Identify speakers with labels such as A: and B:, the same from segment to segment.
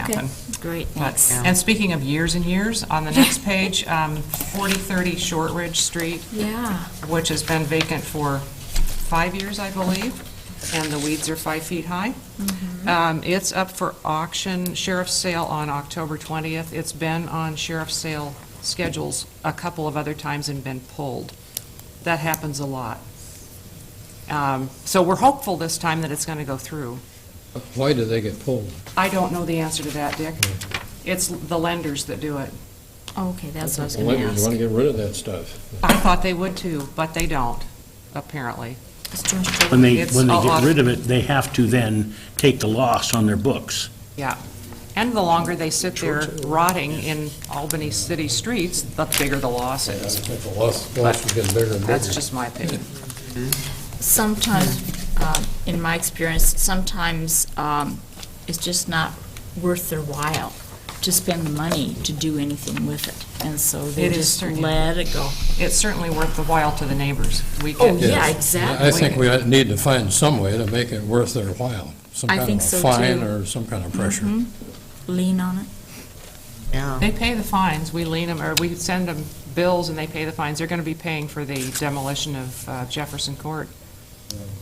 A: happen.
B: Great,
A: But-
B: thanks.
A: And speaking of years and years, on the next page, um, 4030 Shortridge Street,
B: Yeah,
A: which has been vacant for five years, I believe, and the weeds are five feet high.
B: Mm-hmm.
A: Um, It's up for auction, sheriff's sale on October 20th. It's been on sheriff's sale schedules a couple of other times and been pulled. That happens a lot. Um, So we're hopeful this time that it's going to go through.
C: Why do they get pulled?
A: I don't know the answer to that, Dick.
B: Hmm.
A: It's the lenders that do it.
B: Oh, okay, that's what I was
C: The
B: going to
C: lenders
B: ask.
C: want to get rid of that stuff.
A: I thought they would too, but they don't, apparently.
B: It's Josh Jordan.
D: When they,
A: It's
D: when they
A: a lot-
D: get rid of it, they have to then take the loss on their books.
A: Yeah. And the longer they sit there rotting in Albany city streets, the bigger the loss
C: I
A: is.
C: think the loss, loss is getting bigger and bigger.
A: That's just my opinion.
B: Sometimes, um, in my experience, sometimes um, it's just not worth their while to spend the money to do anything with it. And so they
A: It is
B: just
A: certainly-
B: let it go.
A: It's certainly worth the while to the neighbors. We
B: Oh,
A: get,
B: yeah,
C: Yes. I
B: exactly.
C: think we ought- need to find some way to make it worth their while. Some
B: I
C: kind
B: think
C: of a
B: so,
C: fine
B: too.
C: or some kind of pressure.
B: Mhm. Lean on it.
A: they pay the fines, we lien them, or we send them bills and they pay the fines. They're going to be paying for the demolition of uh, Jefferson Court.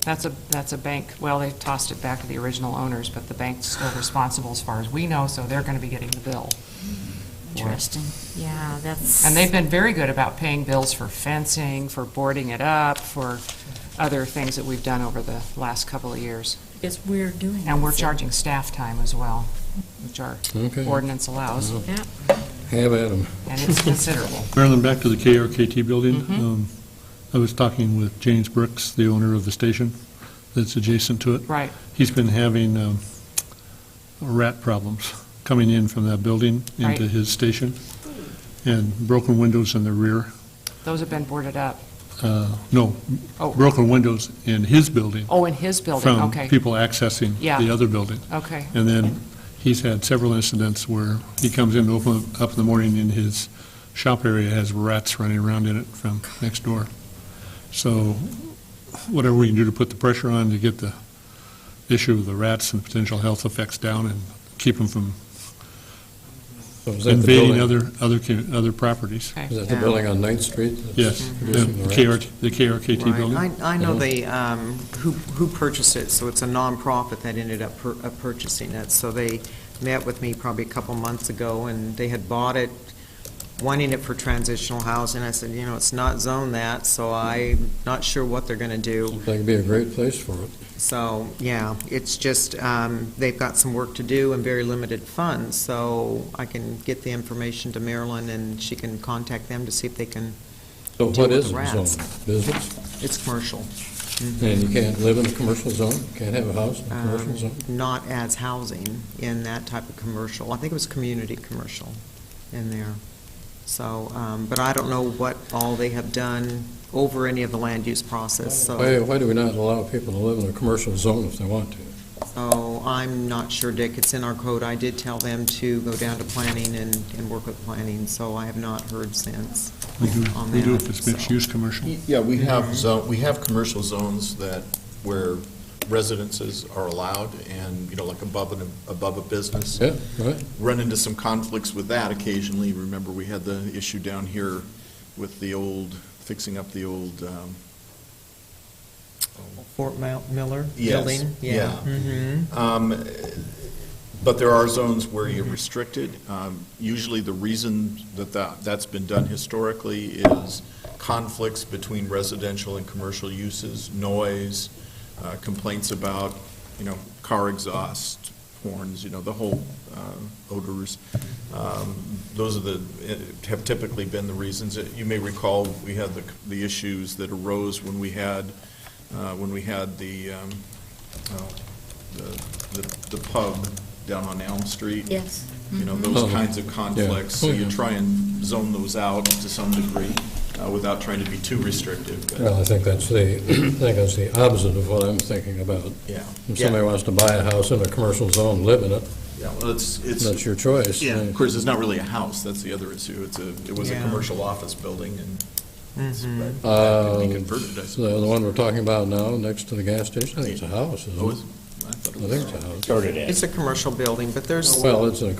A: That's a, that's a bank, well, they tossed it back to the original owners, but the bank's still responsible as far as we know, so they're going to be getting the bill. for it.
B: Interesting. Yeah, that's.
A: And they've been very good about paying bills for fencing, for boarding it up, for other things that we've done over the last couple of years.
B: It's weird doing it.
A: And we're
B: so-
A: charging staff time as well, which our
C: Okay.
A: ordinance allows, and
B: Yeah.
C: Have at 'em.
A: it's considerable.
E: Marilyn, back to the KRKT building.
A: Mm-hmm.
E: Um, I was talking with James Brooks, the owner of the station that's adjacent to it.
A: Right.
E: He's been having um, rat problems coming in from that building into
A: Right.
E: his station, and broken windows in the rear,
A: Those have been boarded up.
E: uh, no,
A: Oh.
E: broken windows in his building
A: Oh, in his building,
E: from
A: okay.
E: people accessing
A: Yeah.
E: the other building.
A: Okay,
E: And then he's had several incidents where he comes in, to open up in the morning, and his shop area has rats running around in it from next door. So whatever we can do to put the pressure on to get the issue of the rats and potential health effects down and keep them from
C: So is that the
E: invading
C: building-
E: other, other, commu- other properties.
A: okay.
C: Is that the building on Ninth Street? that's
E: Yes, the
C: producing the rats?
E: KRT the KRKT
F: Right.
E: building.
F: I, I know they, um, who, who purchased it, so it's a nonprofit that ended up pur- uh, purchasing it. So they met with me probably a couple months ago, and they had bought it, wanting it for transitional housing. I said, you know, it's not zoned that, so I'm not sure what they're gonna do.
C: That'd be a great place for it.
F: So, yeah, it's just, um, they've got some work to do and very limited funds, so I can get the information to Marilyn, and she can contact them to see if they can,
C: So
F: Deal
C: what
F: with
C: is
F: the
C: it
F: rats.
C: zone? Business?
F: it's commercial. Mm-hmm.
C: And you can't live in a commercial zone? Can't have a house in a commercial
F: um,
C: zone?
G: Mm-hmm.
F: not as housing in that type of commercial. I think it was community commercial in there. So, um, but I don't know what all they have done over any of the land use process,
C: Why,
F: so,
C: why do we not allow people to live in a commercial zone if they want to?
F: so I'm not sure, Dick, it's in our code. I did tell them to go down to planning and, and work with planning, so I have not heard since.
E: We do,
F: on
E: we do
F: that,
E: if it's
F: so.
E: mixed-use commercial.
G: Yeah, we have zone, we have commercial zones that, where residences are allowed and, you know, like above an, above a business.
C: Yeah, right?
G: Run into some conflicts with that occasionally. Remember, we had the issue down here with the old, fixing up the old, um,
F: Fort Mount Miller
G: Yes,
F: building?
G: yeah.
F: Mm-hmm.
G: Um, But there are zones where you're restricted. Um, Usually, the reason that that- that's been done historically is conflicts between residential and commercial uses, noise, uh, complaints about, you know, car exhaust, horns, you know, the whole uh, odors. Um, Those are the, uh, have typically been the reasons. Uh, You may recall, we had the the issues that arose when we had, uh, when we had the, um, oh, the, the the pub down on Elm Street.
B: Yes.
G: You know, those
C: Mhm.
G: kinds of conflicts, so
C: Oh,
G: you
C: yeah.
G: try and zone those out to some degree uh, without trying to be too restrictive. but-
C: Well, I think that's the, I think that's the opposite of what I'm thinking about.
G: Yeah,
C: If
G: yeah,
C: somebody wants to buy a house in a commercial zone, live in it,
G: yeah, well, it's,
C: that's
G: it's,
C: your choice.
G: yeah, of course, it's not really a house, that's the other issue, it's a, it was a
F: Yeah. Mm-hmm.
G: commercial office building and it's- but that
C: Uh,
G: could be converted, I
C: The the
G: suppose.
C: one we're talking about now, next to the gas station, I think it's a house, isn't
G: Oh, is-
C: it?
G: I thought
C: I
G: it
C: think
G: was-
C: it's a house.
D: Started
F: It's a commercial building, but there's.
C: Well, it's a